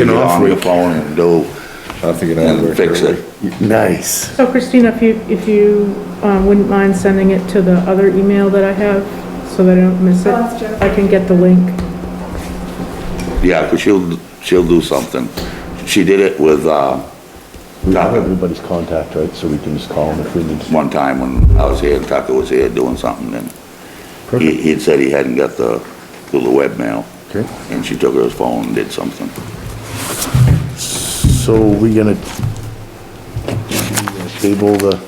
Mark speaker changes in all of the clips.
Speaker 1: An off
Speaker 2: long
Speaker 1: week.
Speaker 2: phone and do,
Speaker 3: I think it
Speaker 2: and
Speaker 3: has.
Speaker 2: fix it.
Speaker 1: Nice.
Speaker 4: So Christina, if you, if you um, wouldn't mind sending it to the other email that I have, so that I don't miss it,
Speaker 5: Oh, that's Jennifer.
Speaker 4: I can get the link.
Speaker 2: Yeah, because she'll, she'll do something. She did it with, uh,
Speaker 6: We have
Speaker 2: Tucker
Speaker 6: everybody's contact, right, so we can just call them if we need to.
Speaker 2: one time when I was here, and Tucker was here doing something, and he, he'd said he hadn't got the, through the webmail.
Speaker 6: Okay.
Speaker 2: And she took her phone and did something.
Speaker 1: So we gonna table the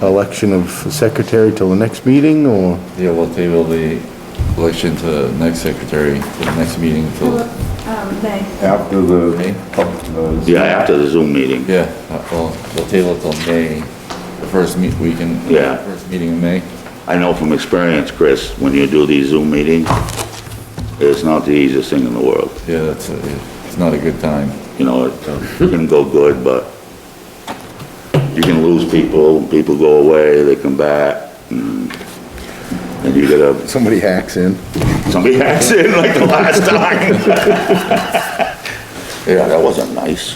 Speaker 1: election of secretary till the next meeting, or?
Speaker 3: Yeah, we'll table the election to next secretary, to the next meeting till,
Speaker 5: Um, May.
Speaker 6: After
Speaker 3: May?
Speaker 6: the, uh,
Speaker 2: Yeah, after the Zoom meeting.
Speaker 3: yeah, uh, well, we'll table it till May, the first meet, weekend.
Speaker 2: Yeah.
Speaker 3: First meeting in May.
Speaker 2: I know from experience, Chris, when you do these Zoom meetings, it's not the easiest thing in the world.
Speaker 3: Yeah, that's, a- it's not a good time.
Speaker 2: You know, it can go good, but you can lose people, people go away, they come back, and and you gotta,
Speaker 1: Somebody hacks in.
Speaker 2: somebody hacks in like the last time. Yeah, that wasn't nice.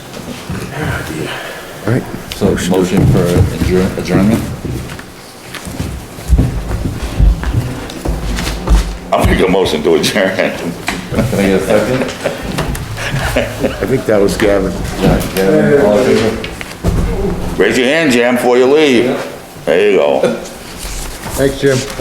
Speaker 1: All right,
Speaker 3: So motion for adjourn- adjournment?
Speaker 2: I'll make a motion to adjourn.
Speaker 3: Can I get a second?
Speaker 1: I think that was Gavin.
Speaker 3: Yeah, Gavin, all in favor?
Speaker 2: Raise your hand, Jim, before you leave. There you go.
Speaker 1: Thanks, Jim.